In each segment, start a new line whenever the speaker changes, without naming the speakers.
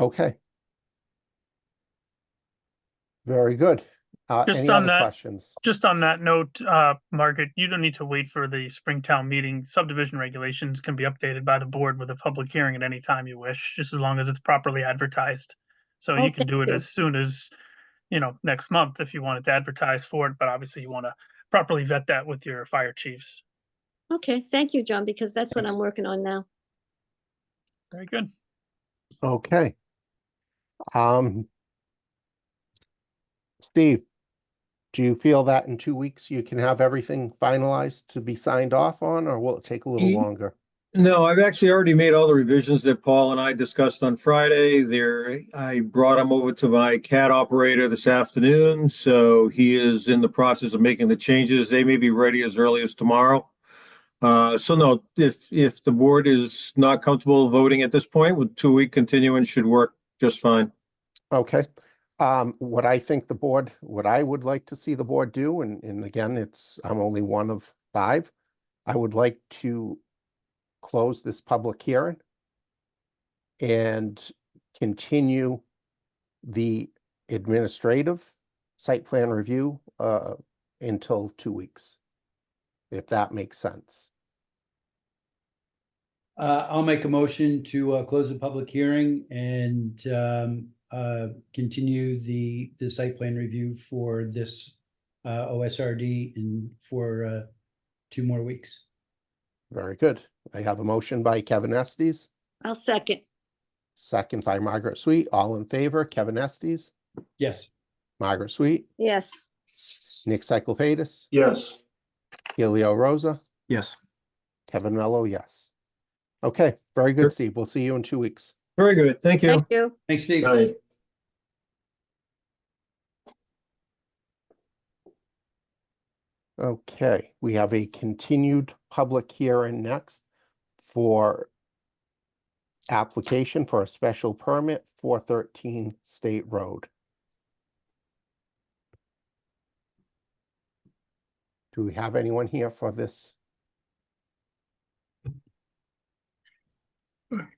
Okay. Very good. Uh,
Just
any
on
other
that-
questions?
Just on that note, uh, Margaret, you don't need to wait for the Springtown meeting. Subdivision regulations can be updated by the board with a public hearing at any time you wish, just as long as it's properly advertised. So
Oh,
you can
thank
do it
you.
as soon as, you know, next month if you wanted to advertise for it, but obviously you want to properly vet that with your fire chiefs.
Okay, thank you, John, because that's what I'm working on now.
Very good.
Okay. Um. Steve, do you feel that in two weeks you can have everything finalized to be signed off on, or will it take a little
Ye-
longer?
No, I've actually already made all the revisions that Paul and I discussed on Friday. There, I brought him over to my CAD operator this afternoon, so he is in the process of making the changes. They may be ready as early as tomorrow. Uh, so no, if, if the board is not comfortable voting at this point, with two-week continuance should work just fine.
Okay, um, what I think the board, what I would like to see the board do, and, and again, it's, I'm only one of five. I would like to close this public hearing and continue the administrative site plan review, uh, until two weeks. If that makes sense.
Uh, I'll make a motion to, uh, close the public hearing and, um, uh, continue the, the site plan review for this, uh, OSRD in, for, uh, two more weeks.
Very good. I have a motion by Kevin Estes,
I'll second.
second by Margaret Sweet. All in favor, Kevin Estes,
Yes.
Margaret Sweet,
Yes,
Nick Cyclepatis,
Yes.
Helio Rosa,
Yes.
Kevin Mello, yes. Okay, very
Sure.
good, Steve. We'll see you in two weeks.
Very good, thank you.
thank you.
Thanks, Steve.
Right.
Okay, we have a continued public hearing next for application for a special permit, four thirteen State Road. Do we have anyone here for this?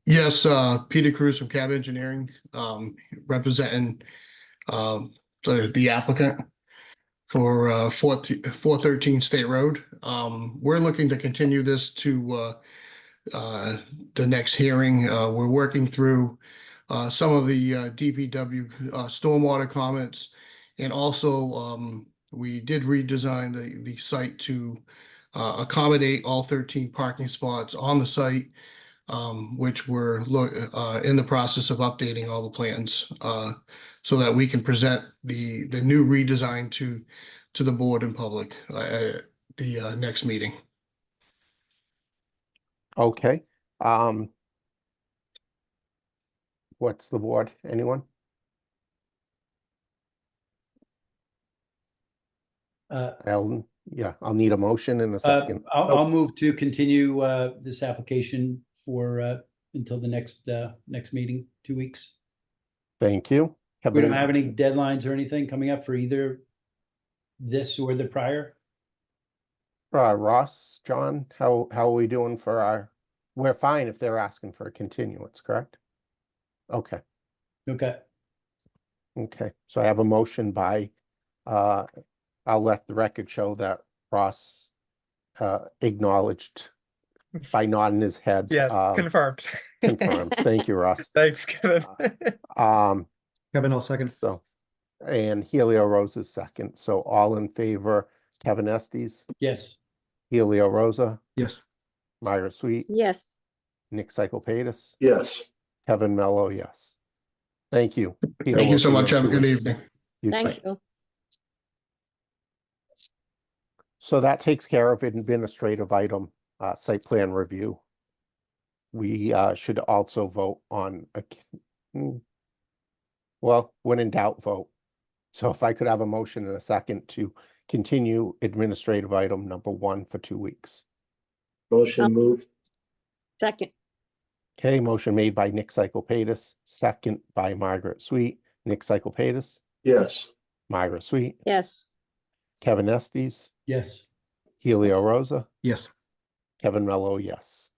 Yes, uh, Peter Cruz from Cab Engineering, um, representing, um, the, the applicant for, uh, four, four thirteen State Road. Um, we're looking to continue this to, uh, uh, the next hearing. Uh, we're working through, uh, some of the, uh, DPW, uh, stormwater comments. And also, um, we did redesign the, the site to, uh, accommodate all thirteen parking spots on the site um, which we're look, uh, in the process of updating all the plans, uh, so that we can present the, the new redesign to, to the board in public, uh, at the, uh, next meeting.
Okay, um. What's the board? Anyone?
Uh,
Ellen, yeah, I'll need a motion in a
uh,
second.
I'll, I'll move to continue, uh, this application for, uh, until the next, uh, next meeting, two weeks.
Thank you.
We don't
Kevin-
have any deadlines or anything coming up for either this or the prior.
Uh, Ross, John, how, how are we doing for our, we're fine if they're asking for a continuance, correct? Okay,
Okay.
okay. So I have a motion by, uh, I'll let the record show that Ross, uh, acknowledged by nodding his head.
Yes,
uh,
confirmed.
Confirmed. Thank you, Ross.
Thanks, Kevin.
Um,
Kevin, I'll second.
so, and Helio Rose is second. So all in favor, Kevin Estes,
Yes.
Helio Rosa,
Yes.
Myra Sweet,
Yes,
Nick Cyclepatis.
Yes.
Kevin Mello, yes. Thank you. Peter,
Thank you
we'll
so
see
much.
in
Have a
two
good
weeks.
evening.
You too.
thank you.
So that takes care of administrative item, uh, site plan review. We, uh, should also vote on a, c- hmm. well, when in doubt, vote. So if I could have a motion in a second to continue administrative item number one for two weeks.
Oh.
Motion moved.
Second,
Okay, motion made by Nick Cyclepatis, second by Margaret Sweet. Nick Cyclepatis,
Yes.
Margaret Sweet,
yes,
Kevin Estes,
Yes.
Helio Rosa,
Yes.
Kevin Mello, yes.